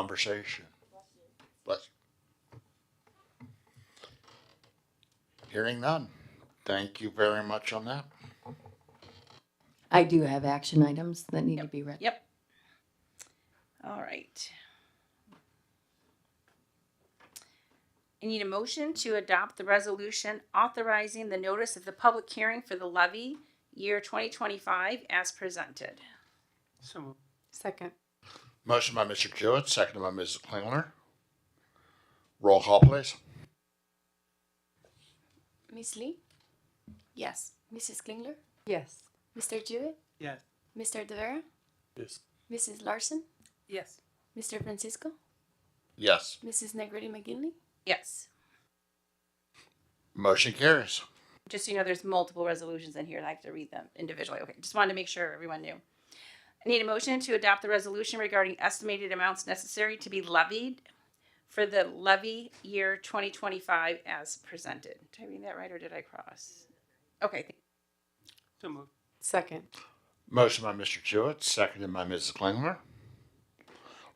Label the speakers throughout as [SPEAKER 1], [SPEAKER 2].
[SPEAKER 1] conversation. Bless you. Hearing none. Thank you very much on that.
[SPEAKER 2] I do have action items that need to be read.
[SPEAKER 3] Yep. All right. I need a motion to adopt the resolution authorizing the notice of the public hearing for the levy year twenty twenty-five as presented.
[SPEAKER 4] So moved.
[SPEAKER 5] Second.
[SPEAKER 1] Motion by Mr. Jewett, seconded by Mrs. Klingler. Roll call, please.
[SPEAKER 6] Miss Lee? Yes. Mrs. Klingler?
[SPEAKER 5] Yes.
[SPEAKER 6] Mr. Jewett?
[SPEAKER 4] Yes.
[SPEAKER 6] Mr. De Vera?
[SPEAKER 4] Yes.
[SPEAKER 6] Mrs. Larson?
[SPEAKER 4] Yes.
[SPEAKER 6] Mr. Francisco?
[SPEAKER 1] Yes.
[SPEAKER 6] Mrs. Negretti McGinley?
[SPEAKER 3] Yes,
[SPEAKER 1] Motion carries.
[SPEAKER 3] just so you know, there's multiple resolutions in here, and I have to read them individually, okay, just wanted to make sure everyone knew. I need a motion to adopt the resolution regarding estimated amounts necessary to be levied for the levy year twenty twenty-five as presented. Did I read that right, or did I cross? Okay, thank-
[SPEAKER 4] So moved.
[SPEAKER 5] Second.
[SPEAKER 1] Motion by Mr. Jewett, seconded by Mrs. Klingler.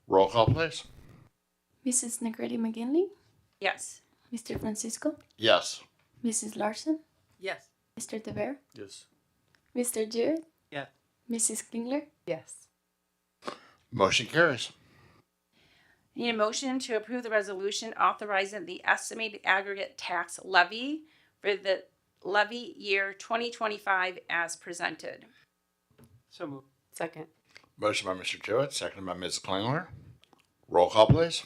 [SPEAKER 1] Roll call, please.
[SPEAKER 6] Mrs. Negretti McGinley?
[SPEAKER 3] yes,
[SPEAKER 6] Mr. Francisco?
[SPEAKER 1] Yes.
[SPEAKER 6] Mrs. Larson?
[SPEAKER 4] Yes.
[SPEAKER 6] Mr. De Vera?
[SPEAKER 4] Yes.
[SPEAKER 6] Mr. Jewett?
[SPEAKER 4] Yes.
[SPEAKER 6] Mrs. Klingler?
[SPEAKER 5] Yes.
[SPEAKER 1] Motion carries.
[SPEAKER 3] I need a motion to approve the resolution authorizing the estimated aggregate tax levy for the levy year twenty twenty-five as presented.
[SPEAKER 4] So moved.
[SPEAKER 5] Second.
[SPEAKER 1] Motion by Mr. Jewett, seconded by Mrs. Klingler. Roll call, please.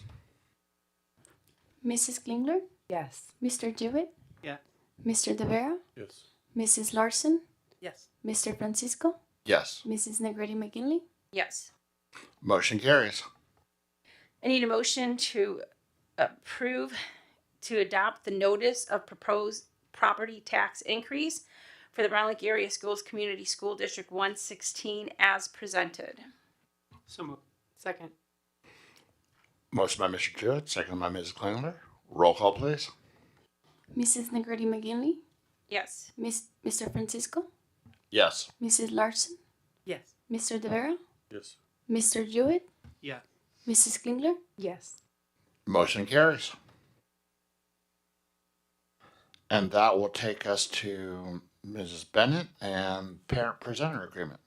[SPEAKER 6] Mrs. Klingler?
[SPEAKER 5] Yes.
[SPEAKER 6] Mr. Jewett?
[SPEAKER 4] Yeah.
[SPEAKER 6] Mr. De Vera?
[SPEAKER 4] Yes.
[SPEAKER 6] Mrs. Larson?
[SPEAKER 4] Yes.
[SPEAKER 6] Mr. Francisco?
[SPEAKER 1] Yes.
[SPEAKER 6] Mrs. Negretti McGinley?
[SPEAKER 3] Yes.
[SPEAKER 1] Motion carries.
[SPEAKER 3] I need a motion to approve to adopt the notice of proposed property tax increase for the Brown Lake Area Schools Community School District one sixteen as presented.
[SPEAKER 4] So moved.
[SPEAKER 5] Second.
[SPEAKER 1] Motion by Mr. Jewett, seconded by Mrs. Klingler. Roll call, please.
[SPEAKER 6] Mrs. Negretti McGinley?
[SPEAKER 3] Yes.
[SPEAKER 6] Miss, Mr. Francisco?
[SPEAKER 1] Yes.
[SPEAKER 6] Mrs. Larson?
[SPEAKER 4] Yes.
[SPEAKER 6] Mr. De Vera?
[SPEAKER 4] Yes.
[SPEAKER 6] Mr. Jewett?
[SPEAKER 4] Yeah.
[SPEAKER 6] Mrs. Klingler?
[SPEAKER 5] Yes.
[SPEAKER 1] Motion carries. And that will take us to Mrs. Bennett and parent presenter agreement.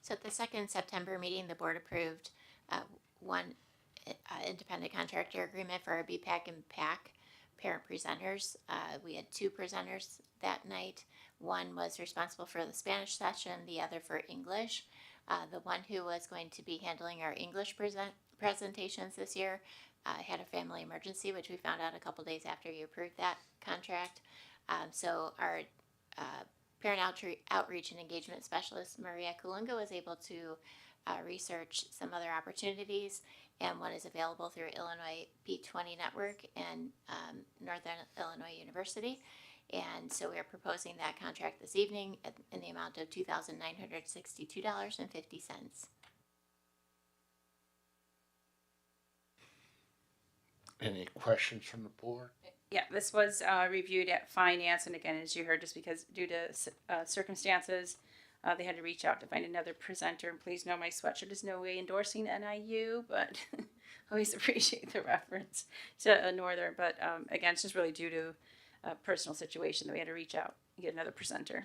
[SPEAKER 7] So at the second September meeting, the board approved uh, one uh, independent contractor agreement for our BPAC and PAC parent presenters. Uh, We had two presenters that night. One was responsible for the Spanish session, the other for English. Uh, The one who was going to be handling our English present presentations this year uh, had a family emergency, which we found out a couple days after you approved that contract. Um, So our uh, parent outre- outreach and engagement specialist Maria Kulunga was able to uh, research some other opportunities, and one is available through Illinois P20 Network and um, Northern Illinois University. And so we are proposing that contract this evening at, in the amount of $2,962.50.
[SPEAKER 1] Any questions from the board?
[SPEAKER 3] Yeah, this was uh, reviewed at finance, and again, as you heard, just because due to c- uh, circumstances, uh, they had to reach out to find another presenter. And please know my sweatshirt is no way endorsing NIU, but always appreciate the reference to uh, Northern. But um, again, it's just really due to a personal situation that we had to reach out and get another presenter.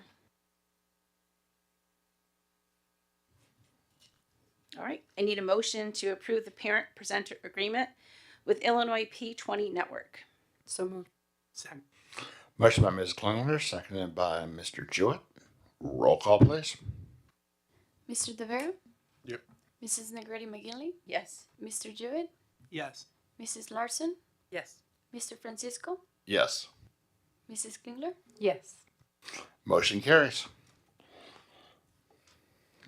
[SPEAKER 3] All right, I need a motion to approve the parent presenter agreement with Illinois P20 Network.
[SPEAKER 5] So moved.
[SPEAKER 4] Second.
[SPEAKER 1] Motion by Mrs. Klingler, seconded by Mr. Jewett. Roll call, please.
[SPEAKER 6] Mr. De Vera?
[SPEAKER 1] Yep.
[SPEAKER 6] Mrs. Negretti McGinley?
[SPEAKER 3] Yes.
[SPEAKER 6] Mr. Jewett?
[SPEAKER 4] Yes.
[SPEAKER 6] Mrs. Larson?
[SPEAKER 4] Yes.
[SPEAKER 6] Mr. Francisco?
[SPEAKER 1] Yes.
[SPEAKER 6] Mrs. Klingler?
[SPEAKER 5] Yes.
[SPEAKER 1] Motion carries.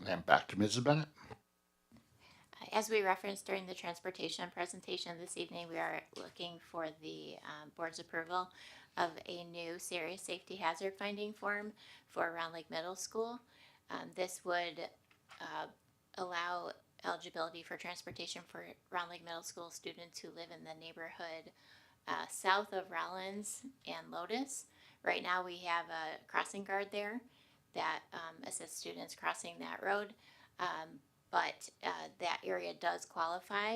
[SPEAKER 1] And back to Mrs. Bennett.
[SPEAKER 7] Uh, As we referenced during the transportation presentation this evening, we are looking for the um, board's approval of a new serious safety hazard finding form for Round Lake Middle School. Um, This would uh, allow eligibility for transportation for Round Lake Middle School students who live in the neighborhood uh, south of Rollins and Lotus. Right now, we have a crossing guard there that um, assists students crossing that road. Um, but uh, that area does qualify